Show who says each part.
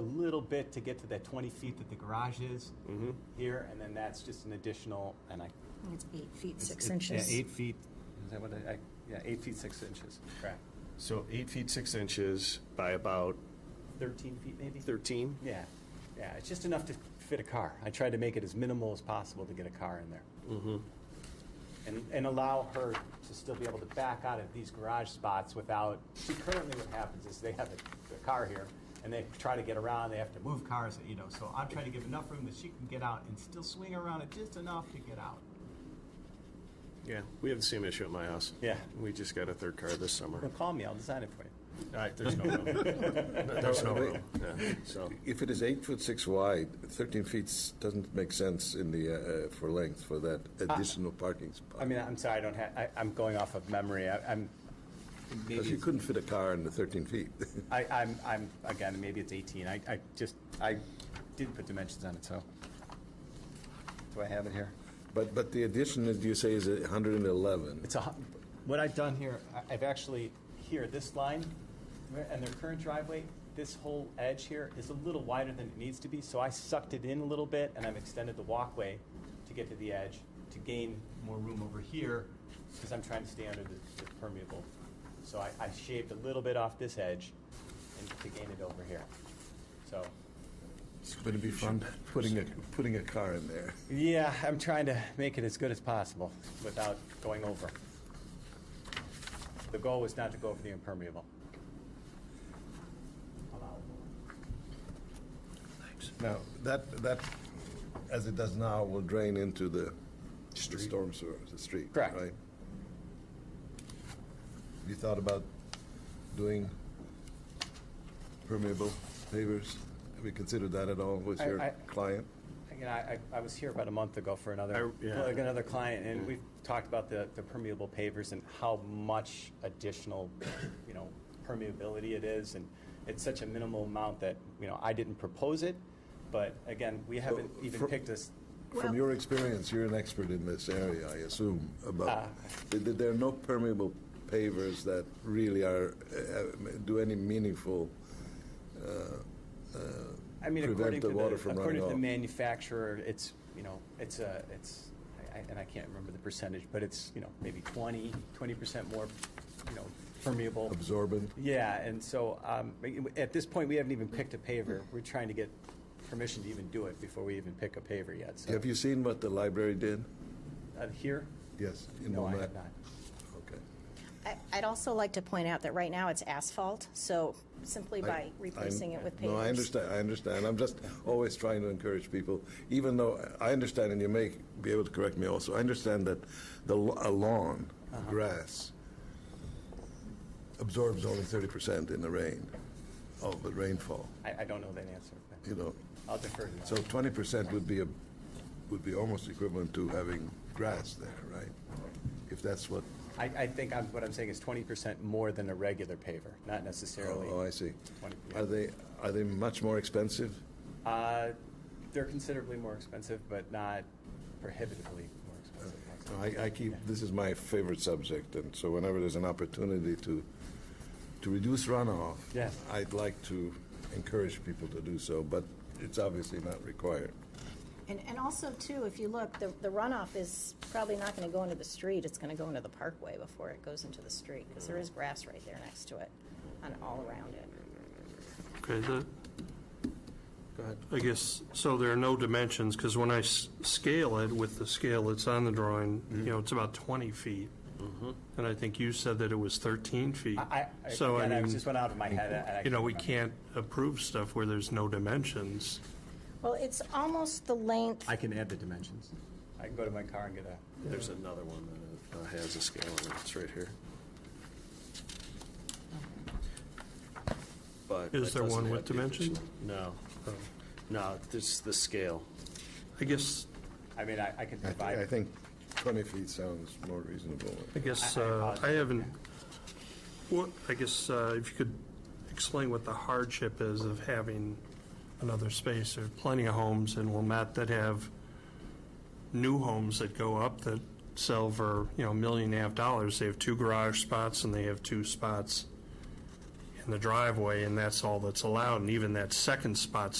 Speaker 1: little bit to get to that 20 feet that the garage is here, and then that's just an additional, and I.
Speaker 2: It's eight feet,
Speaker 1: it's-
Speaker 2: six
Speaker 1: it's-
Speaker 2: inches.
Speaker 1: Yeah, eight feet, is that what I, I- yeah, eight feet, six inches, correct.
Speaker 3: So eight feet, six inches by about
Speaker 1: 13 feet maybe?
Speaker 3: 13?
Speaker 1: Yeah, yeah, it's just enough to fit a car. I tried to make it as minimal as possible to get a car in there.
Speaker 3: Mm-hmm.
Speaker 1: And, and allow her to still be able to back out of these garage spots without, see currently what happens is they have a, a car here and they try to get around, they have to move cars, you know, so I'm trying to give enough room that she can get out and still swing around it just enough to get out.
Speaker 3: Yeah, we have the same issue at my house.
Speaker 1: Yeah.
Speaker 3: We just got a third car this summer.
Speaker 1: Well, call me, I'll design it for you.
Speaker 3: All right, there's no room. There's no room, yeah, so.
Speaker 4: If it is eight foot six wide, 13 feet s- doesn't make sense in the, uh, uh, for length for that additional parking spot.
Speaker 1: I mean, I'm sorry, I don't have, I, I'm going off of memory, I, I'm. maybe
Speaker 4: Because you
Speaker 1: it's-
Speaker 4: couldn't fit a car in the 13 feet.
Speaker 1: I, I'm, I'm, again, maybe it's 18. I, I just, I didn't put dimensions on it, so. Do I have it here?
Speaker 4: But, but the addition, as you say, is 111.
Speaker 1: It's a, hu- what I've done here, I- I've actually, here, this line, where- and their current driveway, this whole edge here is a little wider than it needs to be, so I sucked it in a little bit, and I've extended the walkway to get to the edge, to gain more room over here, because I'm trying to stay under the the permeable. So I, I shaved a little bit off this edge and to gain it over here. So,
Speaker 4: Would it be fun putting a, putting a car in there?
Speaker 1: yeah, I'm trying to make it as good as possible without going over. The goal was not to go over the impermeable.
Speaker 4: Now, that, that, as it does now, will drain into the the storm sewer, the street, right?
Speaker 1: Correct.
Speaker 4: You thought about doing permeable pavers? Have you considered that at all with
Speaker 1: I-
Speaker 4: your
Speaker 1: I-
Speaker 4: client?
Speaker 1: Again, I, I- I was here about a month ago for another,
Speaker 3: I- yeah.
Speaker 1: like another client, and we've talked about the, the permeable pavers and how much additional, you know, permeability it is, and it's such a minimal amount that, you know, I didn't propose it, but again, we haven't even
Speaker 4: for-
Speaker 1: picked this,
Speaker 2: Well-
Speaker 4: From your experience, you're an expert in this area, I assume, about,
Speaker 1: Ah.
Speaker 4: th- th- there are no permeable pavers that really are, uh, uh, do any meaningful uh,
Speaker 1: I mean,
Speaker 4: prevent
Speaker 1: according to
Speaker 4: the
Speaker 1: the,
Speaker 4: water from running
Speaker 1: according to the
Speaker 4: off.
Speaker 1: manufacturer, it's, you know, it's a, it's, I- I- and I can't remember the percentage, but it's, you know, maybe 20, 20% more, you know, permeable.
Speaker 4: absorbent.
Speaker 1: Yeah, and so, um, at this point, we haven't even picked a paver. We're trying to get permission to even do it before we even pick a paver yet, so.
Speaker 4: Have you seen what the library did?
Speaker 1: Uh, Here?
Speaker 4: Yes. in
Speaker 1: No, I
Speaker 4: Wilmette?
Speaker 1: have not.
Speaker 4: Okay.
Speaker 2: I- I'd also like to point out that right now it's asphalt, so simply
Speaker 4: I-
Speaker 2: by
Speaker 4: I'm-
Speaker 2: replacing it with pavers.
Speaker 4: No, I understand, I understand. I'm just always trying to encourage people, even though I understand, and you may be able to correct me also, I understand that the lo- a lawn,
Speaker 2: Uh-huh.
Speaker 4: grass, absorbs only 30% in the rain, of the rainfall,
Speaker 1: I, I don't know that answer. but
Speaker 4: you know.
Speaker 1: I'll defer to that.
Speaker 4: So 20% would be, a would be almost equivalent to having grass there, right? If that's what,
Speaker 1: I, I think I'm, what I'm saying is twenty percent more than a regular paver, not necessarily.
Speaker 4: oh, I see.
Speaker 1: 20, yeah.
Speaker 4: Are they, are they much more expensive?
Speaker 1: Uh, They're considerably more expensive, but not prohibitively more expensive.
Speaker 4: No, I, I keep, this is my favorite subject, and so whenever there's an opportunity to, to reduce runoff,
Speaker 1: Yes.
Speaker 4: I'd like to encourage people to do so, but it's obviously not required.
Speaker 2: And, and also too, if you look, the the runoff is probably not going to go into the street, it's going to go into the parkway before it goes into the street, because there is grass right there next to it, and all around it.
Speaker 5: Okay, the, I guess, so there are no dimensions, because when I s- scale it with the scale that's on the drawing, you
Speaker 1: Mm-hmm.
Speaker 5: know, it's about 20 feet. And I think you said that it was 13 feet.
Speaker 1: I, I,
Speaker 5: So,
Speaker 1: again,
Speaker 5: I
Speaker 1: I
Speaker 5: mean,
Speaker 1: just went out of my head. and I
Speaker 5: you know, we
Speaker 1: couldn't remember.
Speaker 5: can't approve stuff where there's no dimensions.
Speaker 2: Well, it's almost the length,
Speaker 1: I can add the dimensions. I can go to my car and get a,
Speaker 3: There's another one that uh, has a scale on it, it's right here. But
Speaker 5: Is
Speaker 3: that
Speaker 5: there
Speaker 3: doesn't
Speaker 5: one with Oh.
Speaker 3: have the
Speaker 5: dimensions?
Speaker 3: additional- No, no, this is the scale.
Speaker 5: I guess,
Speaker 1: I mean, I, I can
Speaker 4: I, thi- I
Speaker 1: provide.
Speaker 4: think 20 feet sounds more reasonable.
Speaker 5: I guess,
Speaker 1: I- I
Speaker 5: uh, I
Speaker 1: apologize.
Speaker 5: haven't, what, I guess, uh, if you could explain what the hardship is of having another space. There are plenty of homes in Wilmette that have new homes that go up that sell for, you know, a million and a half dollars. They have two garage spots and they have two spots in the driveway, and that's all that's allowed. And even that second spot